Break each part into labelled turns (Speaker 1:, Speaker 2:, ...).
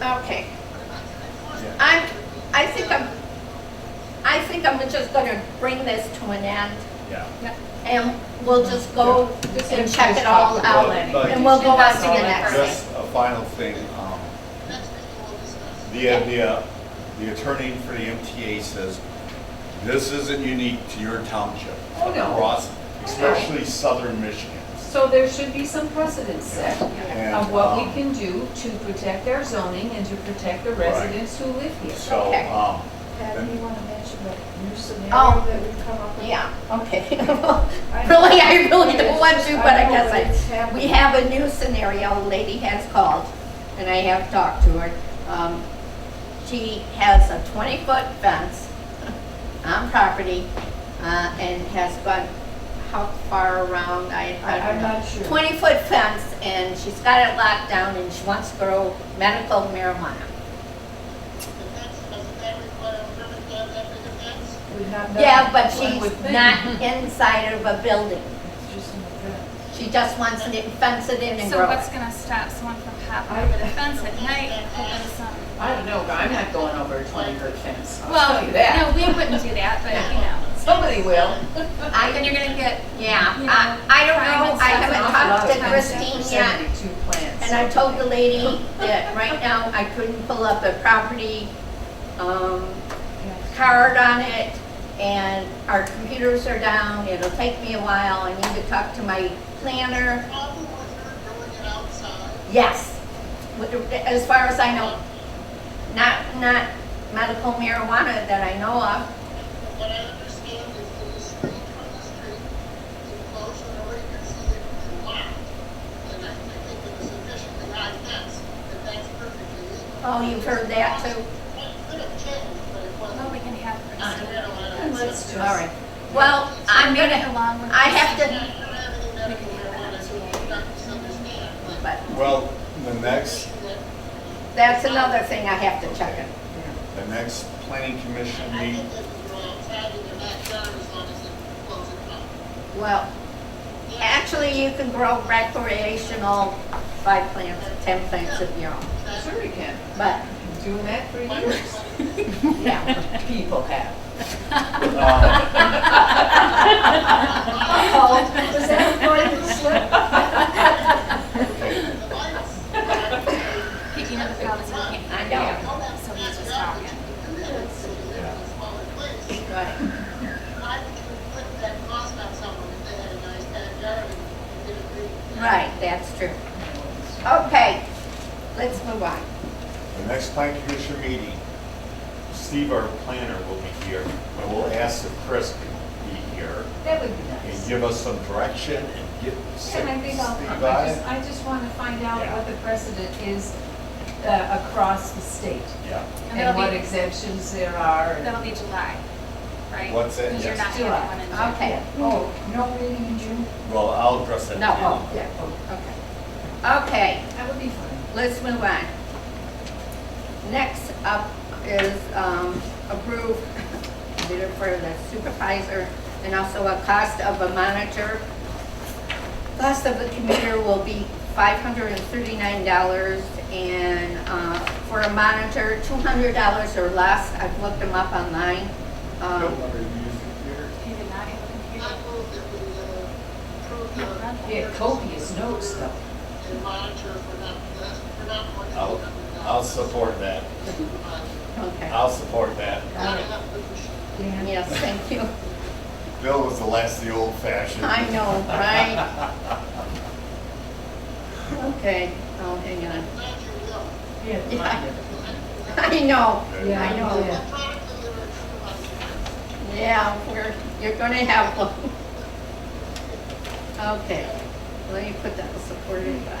Speaker 1: Okay. I'm, I think I'm, I think I'm just gonna bring this to an end,
Speaker 2: Yeah.
Speaker 1: and we'll just go
Speaker 3: Just
Speaker 1: and
Speaker 3: finish
Speaker 1: check
Speaker 3: this
Speaker 1: it all
Speaker 3: topic.
Speaker 1: out,
Speaker 2: But- but-
Speaker 1: and we'll go on to the
Speaker 3: Just-
Speaker 1: next thing.
Speaker 2: Just a final thing, um, the, the, uh, the attorney for the MTA says, this isn't unique to your township.
Speaker 3: Oh, no.
Speaker 2: Across, especially southern Michigan.
Speaker 3: So there should be some precedent set
Speaker 2: And,
Speaker 3: of what we
Speaker 2: um,
Speaker 3: can do to protect our zoning and to protect the
Speaker 2: Right.
Speaker 3: residents who live here.
Speaker 2: So,
Speaker 1: Okay.
Speaker 2: um,
Speaker 4: Pat, do you want to mention the new
Speaker 1: Oh.
Speaker 4: scenario that we come up with?
Speaker 1: Yeah, okay. Really, I really don't want to, but I guess I. We have a new scenario, a lady has called, and I have talked to her. Um, She has a 20-foot fence on property, uh, and has gone, how far around, I, I
Speaker 4: I-
Speaker 1: don't
Speaker 4: I'm
Speaker 1: know.
Speaker 4: not sure.
Speaker 1: 20-foot fence, and she's got it locked down, and she wants to grow medical marijuana.
Speaker 4: Would not know.
Speaker 1: Yeah, but
Speaker 3: One
Speaker 1: she's
Speaker 3: would think.
Speaker 1: not inside of a building.
Speaker 4: It's just an event.
Speaker 1: She just wants to fence it in and
Speaker 5: So
Speaker 1: grow
Speaker 5: what's
Speaker 1: it.
Speaker 5: gonna stop someone from hopping over the fence at night and hoping some?
Speaker 3: I don't know, but I'm not going over a twenty foot fence,
Speaker 5: Well, no, we wouldn't do that, but you know.
Speaker 3: Somebody will.
Speaker 1: I-
Speaker 5: Then you're gonna get,
Speaker 1: Yeah,
Speaker 5: You
Speaker 1: I,
Speaker 5: know,
Speaker 1: I don't know, I
Speaker 5: private stuff
Speaker 1: haven't
Speaker 5: and
Speaker 1: talked to
Speaker 5: lot of
Speaker 1: Christine yet,
Speaker 3: Seventy-two plants.
Speaker 1: and I told the lady that right now I couldn't pull up a property, um, card on it, and our computers are down, it'll take me a while, I need to talk to my planner. Yes, With- as far as I know, not, not medical marijuana that I know of,
Speaker 6: What I understand is that the street from the street is close and already considered locked. And I think if it was sufficiently high fence, that that's perfectly legal.
Speaker 1: oh, you've heard that too? Oh,
Speaker 6: It could have changed, but it
Speaker 5: well,
Speaker 6: wasn't.
Speaker 5: we can have
Speaker 1: Uh,
Speaker 6: I
Speaker 5: Christine.
Speaker 6: don't know.
Speaker 3: Let's just.
Speaker 1: All right, well, I'm
Speaker 5: Bring it
Speaker 1: gonna,
Speaker 5: along with
Speaker 1: I have
Speaker 5: Christine.
Speaker 1: to
Speaker 6: I don't have any medical marijuana, so you don't misunderstand, but
Speaker 1: but
Speaker 2: well, the next,
Speaker 1: That's another thing I have to check in.
Speaker 2: the next planning commission
Speaker 6: I
Speaker 2: meeting,
Speaker 6: think that the wrong side in the backyard as long as it closes up.
Speaker 1: Well, actually, you can grow recreational five plants, 10 plants of your own,
Speaker 3: Sure we can,
Speaker 1: but,
Speaker 3: Been doing that for years,
Speaker 1: yeah.
Speaker 3: people have.
Speaker 2: um,
Speaker 1: Uh-oh.
Speaker 4: Is that a part of the
Speaker 6: The
Speaker 4: slip?
Speaker 6: lights, I think,
Speaker 5: Picking up the problems we can't.
Speaker 1: I know,
Speaker 5: So he's just talking.
Speaker 1: right.
Speaker 6: Why would you put that cost on someone if they had a nice backyard and did a big?
Speaker 1: Right, that's true. Okay, let's move on.
Speaker 2: the next planning commission meeting, Steve, our planner, will be here, and we'll ask if Chris can be here.
Speaker 3: That would be
Speaker 2: and
Speaker 3: nice.
Speaker 2: give us some direction and get some
Speaker 3: And I think I'll,
Speaker 2: speed
Speaker 3: I
Speaker 2: by
Speaker 3: just,
Speaker 2: it.
Speaker 3: I just want to find out
Speaker 2: Yeah.
Speaker 3: what the precedent is uh, across the state
Speaker 2: Yeah,
Speaker 5: And
Speaker 3: and
Speaker 5: that'll
Speaker 3: what
Speaker 5: be,
Speaker 3: exemptions there are. and-
Speaker 5: that'll be July, right?
Speaker 2: What's that?
Speaker 5: Because you're not
Speaker 2: Yes.
Speaker 5: the only one in July.
Speaker 1: Okay,
Speaker 4: Oh, no meeting in June?
Speaker 2: well, I'll address that.
Speaker 1: No,
Speaker 2: again.
Speaker 1: oh.
Speaker 3: Yeah, oh,
Speaker 1: okay. Okay,
Speaker 3: that would be fun.
Speaker 1: let's move on. Next up is um, approve bidder for the supervisor and also a cost of a monitor. Cost of the computer will be $539 and uh, for a monitor, $200 or less. I've looked them up online.
Speaker 2: Don't
Speaker 1: Um,
Speaker 2: let her use the computer.
Speaker 5: He did not have a computer.
Speaker 6: I move that we uh, approve the.
Speaker 3: Yeah, copious notes though.
Speaker 6: And monitor for not, for not more than.
Speaker 2: I'll, I'll support that.
Speaker 1: Okay,
Speaker 2: I'll support that.
Speaker 6: Not enough position.
Speaker 1: yes, thank you.
Speaker 2: Bill was the last, of the old fashioned.
Speaker 1: I know, right? Okay, oh, hang on.
Speaker 6: Glad you know.
Speaker 3: Yeah.
Speaker 1: Yeah. I know,
Speaker 3: mine.
Speaker 2: Yeah,
Speaker 1: I know.
Speaker 3: yeah.
Speaker 6: Product delivered to us.
Speaker 1: Yeah, we're, you're gonna have one. Okay, let me put that supported by,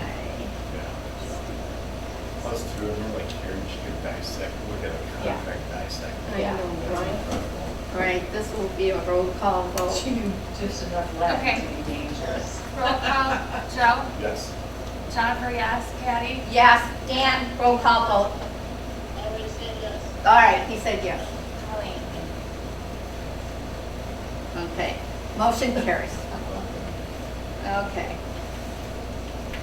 Speaker 2: Us two, and we're like, here, you should dissect, look at a
Speaker 1: Yeah.
Speaker 2: contract dissect.
Speaker 1: I
Speaker 3: Yeah.
Speaker 1: know,
Speaker 2: That's
Speaker 1: right?
Speaker 2: incredible.
Speaker 1: All right, this will be a roll call vote.
Speaker 3: She knew just enough left
Speaker 5: Okay.
Speaker 3: to be dangerous.
Speaker 5: Roll call, Joe,
Speaker 2: Yes.
Speaker 5: Jennifer, yes, Patty,
Speaker 1: Yes, Dan, roll call vote.
Speaker 6: I already said yes.
Speaker 1: All right, he said yes.
Speaker 5: Colleen.
Speaker 1: Okay, motion carries. Okay.